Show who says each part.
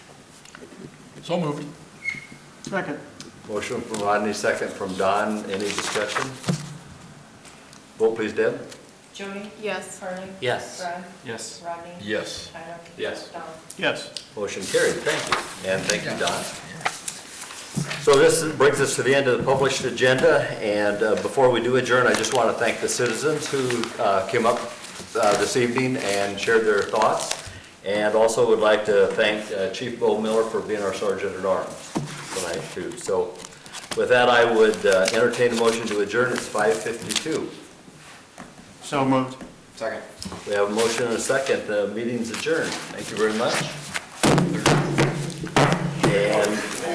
Speaker 1: So moved.
Speaker 2: Second.
Speaker 3: Motion from Rodney, second from Don. Any discussion? Vote please, Deb.
Speaker 4: Jody?
Speaker 5: Yes.
Speaker 4: Harley?
Speaker 6: Yes.
Speaker 4: Brad?
Speaker 2: Yes.
Speaker 4: Rodney?
Speaker 1: Yes.
Speaker 4: Tyler?
Speaker 3: Yes.
Speaker 4: Don?
Speaker 2: Yes.
Speaker 3: Motion carried. Thank you. And thank you, Don. So this brings us to the end of the published agenda, and uh, before we do adjourn, I just want to thank the citizens who uh, came up uh, this evening and shared their thoughts, and also would like to thank uh, Chief Bo Miller for being our Sergeant at Arms tonight, too. So with that, I would uh, entertain a motion to adjourn. It's 5:52.
Speaker 2: So moved.
Speaker 6: Second.
Speaker 3: We have a motion and a second. The meeting's adjourned. Thank you very much. And